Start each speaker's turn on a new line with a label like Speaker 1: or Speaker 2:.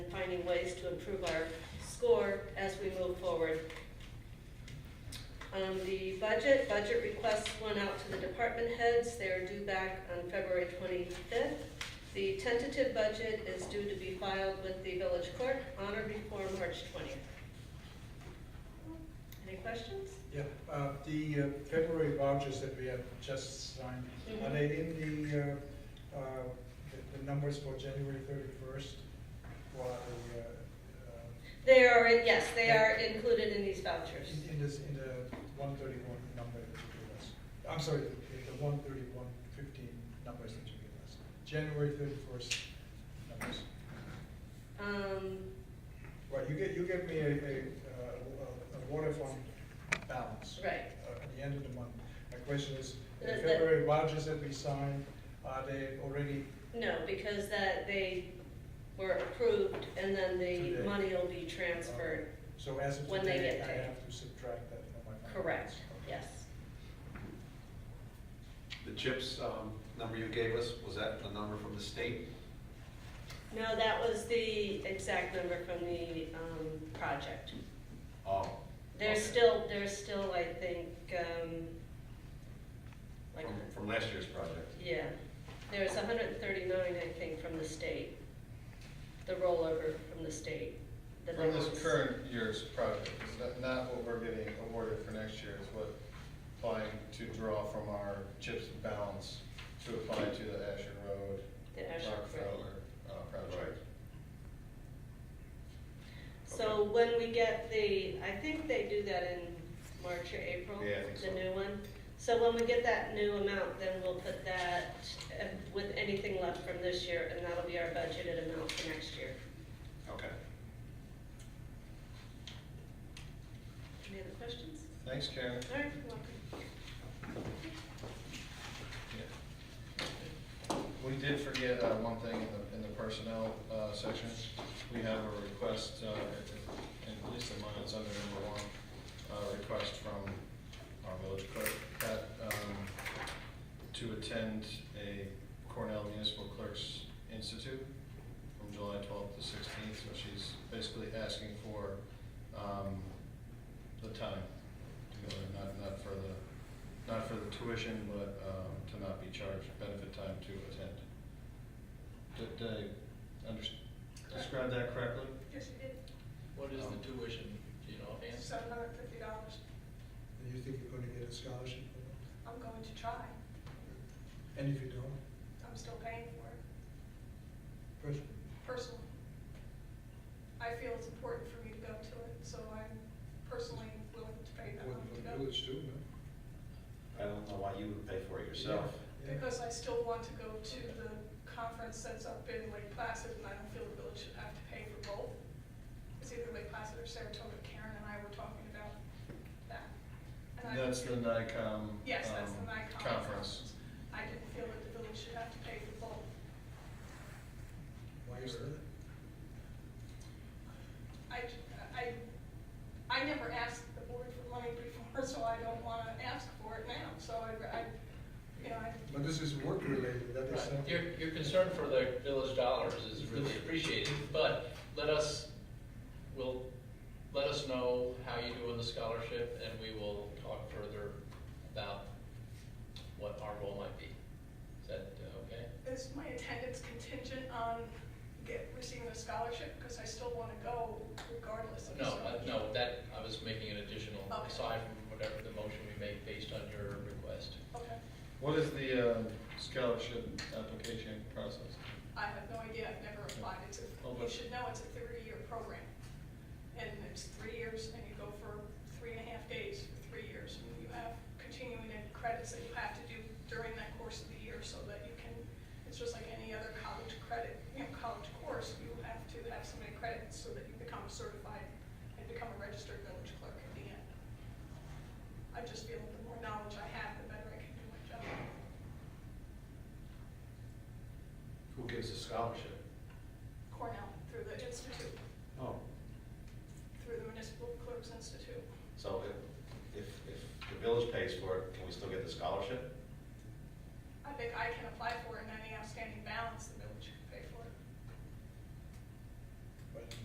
Speaker 1: finding ways to improve our score as we move forward. Um, the budget, budget requests went out to the department heads, they're due back on February twenty-fifth. The tentative budget is due to be filed with the village clerk on or before March twentieth. Any questions?
Speaker 2: Yeah, uh, the uh, February vouchers that we have just signed, are
Speaker 1: Mhm.
Speaker 2: they in the, uh, uh, the- the numbers for January thirty-first? Or, uh, uh,
Speaker 1: They are, in- yes, they are included in these vouchers.
Speaker 2: in, in this, in the one thirty-one number that you gave us? I'm sorry, the, the one thirty-one fifteen numbers that you gave us, January thirty-first numbers.
Speaker 1: Um,
Speaker 2: Right, you get, you gave me a, a, uh, a water fund balance.
Speaker 1: right,
Speaker 2: uh, at the end of the month. My question is, the
Speaker 1: The- the-
Speaker 2: February vouchers that we signed, are they already,
Speaker 1: no, because that, they were approved, and then the
Speaker 2: Today.
Speaker 1: money will be transferred,
Speaker 2: uh, so as of
Speaker 1: When they
Speaker 2: today,
Speaker 1: get
Speaker 2: I
Speaker 1: paid.
Speaker 2: have to subtract that from my balance?
Speaker 1: correct, yes.
Speaker 3: The CHIPS um, number you gave us, was that a number from the state?
Speaker 1: No, that was the exact number from the, um, project.
Speaker 3: Oh.
Speaker 1: There's
Speaker 3: okay.
Speaker 1: still, there's still, I think, um, like,
Speaker 3: From, from last year's project.
Speaker 1: yeah, there's hundred and thirty-nine, I think, from the state, the rollover from the state. the
Speaker 4: From this
Speaker 1: balance.
Speaker 4: current year's project, it's not, not what we're getting awarded for next year, is what applying to draw from our CHIPS balance to apply to the Asher Road,
Speaker 1: The Asher Road.
Speaker 4: Rockefeller, uh, project.
Speaker 1: So when we get the, I think they do that in March or April,
Speaker 4: Yeah, I think
Speaker 1: the
Speaker 4: so.
Speaker 1: new one. So when we get that new amount, then we'll put that uh, with anything left from this year, and that'll be our budgeted amount for next year.
Speaker 3: Okay.
Speaker 1: Any other questions?
Speaker 4: Thanks, Karen.
Speaker 1: All right, you're welcome.
Speaker 4: We did forget uh, one thing in the, in the personnel uh, section. We have a request, uh, and at least in mine, it's under number one, uh, request from our village clerk that, um, to attend a Cornell Municipal Clerks Institute from July twelfth to sixteenth, so she's basically asking for um, the time to go there, not, not for the, not for the tuition, but um, to not be charged benefit time to attend. Did I under, describe that correctly?
Speaker 5: Yes, you did.
Speaker 6: What is the tuition, do you know, offhand?
Speaker 5: Seven hundred fifty dollars.
Speaker 2: And you think you're gonna get a scholarship for
Speaker 5: I'm going to try.
Speaker 2: that? And if you don't,
Speaker 5: I'm still paying for it
Speaker 2: person,
Speaker 5: personally. I feel it's important for me to go to it, so I'm personally willing to pay that
Speaker 2: would,
Speaker 5: money to
Speaker 2: would
Speaker 5: go.
Speaker 2: village too, no?
Speaker 3: I don't know why you would pay for it yourself.
Speaker 2: Yeah.
Speaker 5: Because I still want to go to the conference that's up in Lake Placid and I don't feel the village should have to pay for both. It's either Lake Placid or Saratoga. Karen and I were talking about that. And I-
Speaker 4: That's the NICOM.
Speaker 5: Uh, Yes, that's the
Speaker 4: um,
Speaker 5: NICOM
Speaker 4: Conference.
Speaker 5: I didn't feel that the village should have to pay for both.
Speaker 2: Why is that?
Speaker 5: I, I, I never asked the board for money before, so I don't wanna ask for it now, so I, I, you know, I,
Speaker 2: But this is work related, that is
Speaker 6: Right. Your,
Speaker 2: something.
Speaker 6: your concern for the village dollars is really appreciated, but let us, will, let us know how you do on the scholarship, and we will talk further about what our role might be. Is that uh, okay?
Speaker 5: is my attendance contingent on get, receiving a scholarship, because I still wanna go regardless of. the
Speaker 6: No,
Speaker 5: scholarship.
Speaker 6: uh, no, that, I was making an additional,
Speaker 5: Okay.
Speaker 6: aside from whatever the motion we make based on your request.
Speaker 5: Okay,
Speaker 4: What is the um, scholarship application process?
Speaker 5: I have no idea, I've never applied, it's, a-
Speaker 4: Oh,
Speaker 5: you
Speaker 4: but-
Speaker 5: should know it's a
Speaker 1: Oh.